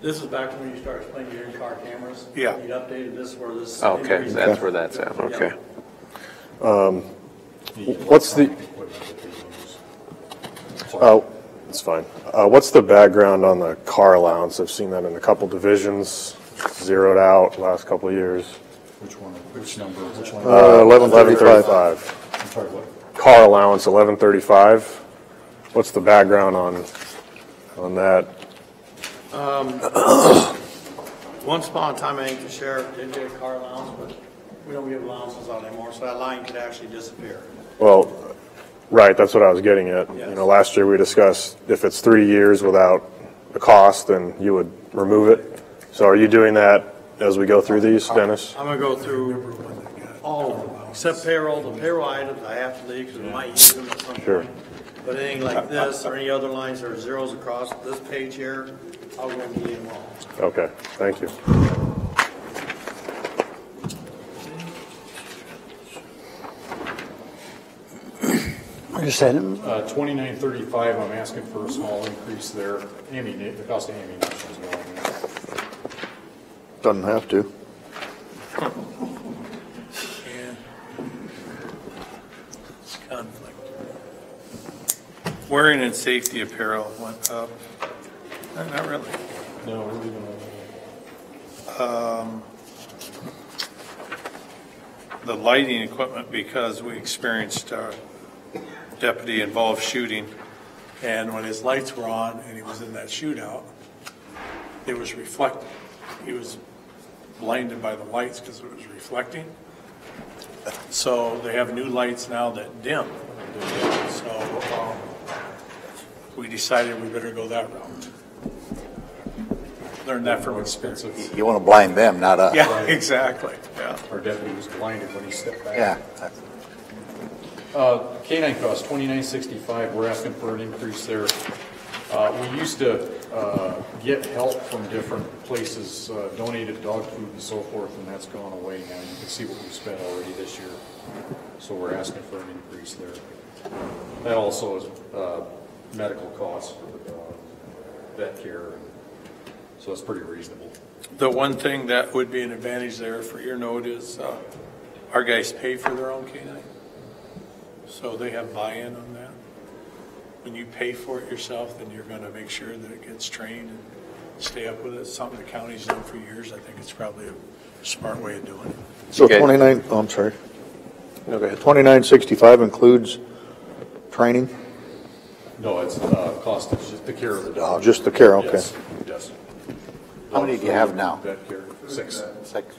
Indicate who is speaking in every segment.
Speaker 1: This is back to when you started explaining your in-car cameras.
Speaker 2: Yeah.
Speaker 1: You updated this where this.
Speaker 3: Okay,
Speaker 1: increase-
Speaker 3: that's where that's at, okay.
Speaker 4: What's the, oh, it's fine. Uh, What's the background on the car allowance? I've seen that in a couple divisions, zeroed out last couple of years.
Speaker 5: Which one, which number, which one?
Speaker 4: Uh, Eleven thirty-five.
Speaker 5: I'm sorry, what?
Speaker 4: Car allowance, eleven thirty-five. What's the background on, on that?
Speaker 1: Once upon a time, I think the sheriff did get a car allowance, but we don't give allowances out anymore, so that line could actually disappear.
Speaker 4: Well, right, that's what I was getting at. You
Speaker 1: Yes.
Speaker 4: know, last year we discussed if it's three years without a cost, then you would remove it. So are you doing that as we go through these, Dennis?
Speaker 1: I'm gonna go through all of them, except payroll, the payroll items I have to leave because we might use them at some
Speaker 4: Sure.
Speaker 1: point. But anything like this or any other lines that are zeros across this page here, I'll go and delete them all.
Speaker 4: Okay, thank you.
Speaker 6: Where is that?
Speaker 5: Uh, 2935, I'm asking for a small increase there. Ammunition, the cost of ammunition is going up.
Speaker 7: Doesn't have to.
Speaker 2: Wearing and safety apparel went up. No, Not really.
Speaker 5: No, we're leaving it.
Speaker 2: The lighting equipment, because we experienced a deputy-involved shooting, and when his lights were on and he was in that shootout, it was reflecting. He was blinded by the lights because it was reflecting. So they have new lights now that dim. So um, we decided we better go that route. Learned that from experience.
Speaker 5: expensive.
Speaker 7: You want to blame them, not us.
Speaker 2: Yeah, exactly, yeah.
Speaker 5: Our deputy was blinded when he stepped back.
Speaker 7: Yeah.
Speaker 5: Uh, K-9 cost, 2965, we're asking for an increase there. Uh, We used to uh, get help from different places, uh, donated dog food and so forth, and that's gone away now. You can see what we've spent already this year, so we're asking for an increase there. That also is uh, medical costs for the dog, vet care, so it's pretty reasonable.
Speaker 2: The one thing that would be an advantage there for your note is, uh, our guys pay for their own canine. So they have buy-in on that. When you pay for it yourself, then you're gonna make sure that it gets trained and stay up with it. Something the county's done for years. I think it's probably a smart way of doing it.
Speaker 7: So
Speaker 3: Okay.
Speaker 7: 29, oh, I'm sorry. Okay, 2965 includes training?
Speaker 5: No, it's uh, cost, it's just the care of the dog.
Speaker 7: Just the care, okay.
Speaker 5: Uh, Yes, yes.
Speaker 7: How many do you have now?
Speaker 5: Vet care, six.
Speaker 7: Six.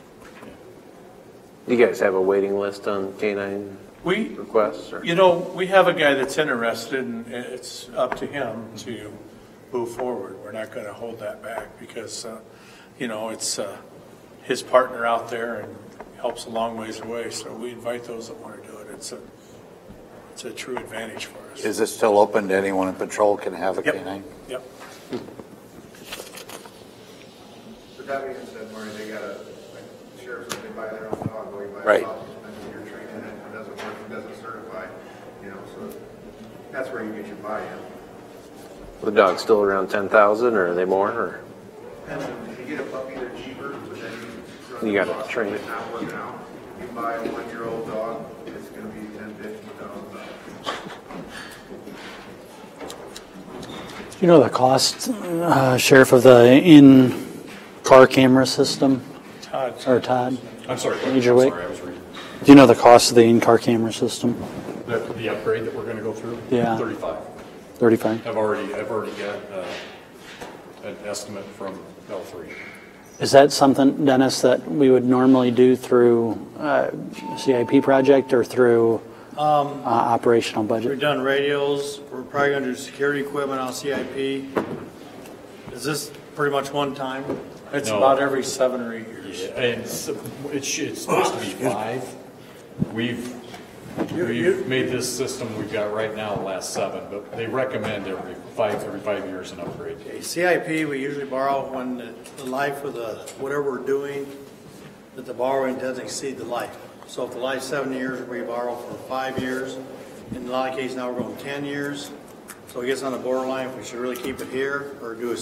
Speaker 3: You guys have a waiting list on K-9
Speaker 2: We,
Speaker 3: requests, or?
Speaker 2: you know, we have a guy that's interested and it's up to him to move forward. We're not gonna hold that back because, uh, you know, it's, uh, his partner out there and helps a long ways away. So we invite those that wanna do it. It's a, it's a true advantage for us.
Speaker 7: Is it still open to anyone in patrol can have a
Speaker 2: Yep.
Speaker 7: canine?
Speaker 2: Yep.
Speaker 8: But that being said, Marty, they gotta, like, sheriffs, when they buy their own dog, or you buy a
Speaker 3: Right.
Speaker 8: dog, and you're training it, if it doesn't work, it doesn't certify, you know, so that's where you get your buy-in.
Speaker 3: The dog's still around 10,000, or are they more, or?
Speaker 8: And then if you get a puppy, they're cheaper, but then you. run
Speaker 3: You
Speaker 8: the
Speaker 3: gotta
Speaker 8: cost of
Speaker 3: train it.
Speaker 8: Not working out, you buy a one-year-old dog, it's gonna be ten, fifteen thousand dollars.
Speaker 6: Do you know the cost, uh, Sheriff, of the in-car camera system?
Speaker 2: Todd,
Speaker 6: Or Todd?
Speaker 5: I'm sorry. what-
Speaker 6: Major
Speaker 5: I'm
Speaker 6: Wick?
Speaker 5: Sorry, I was reading.
Speaker 6: Do you know the cost of the in-car camera system?
Speaker 5: The, the upgrade that we're gonna go through?
Speaker 6: Yeah.
Speaker 5: Thirty-five.
Speaker 6: 35.
Speaker 5: I've already, I've already got, uh, an estimate from L three.
Speaker 6: Is that something, Dennis, that we would normally do through uh, CIP project or through uh, operational
Speaker 1: We've
Speaker 6: budget?
Speaker 1: done radios, we're probably gonna do security equipment on CIP. Is this pretty much one time?
Speaker 2: it's
Speaker 5: No.
Speaker 2: about every seven or eight years.
Speaker 5: And it's, it should, it's supposed to be five. We've, we've made this system we've got right now last seven, but they recommend every five, every five years an upgrade.
Speaker 1: Okay, CIP, we usually borrow when the- the life of the, whatever we're doing, that the borrowing doesn't exceed the life. So if the life's seven years, we borrow for five years. In a lot of cases now, we're going 10 years. So it gets on the borderline, if we should really keep it here or do a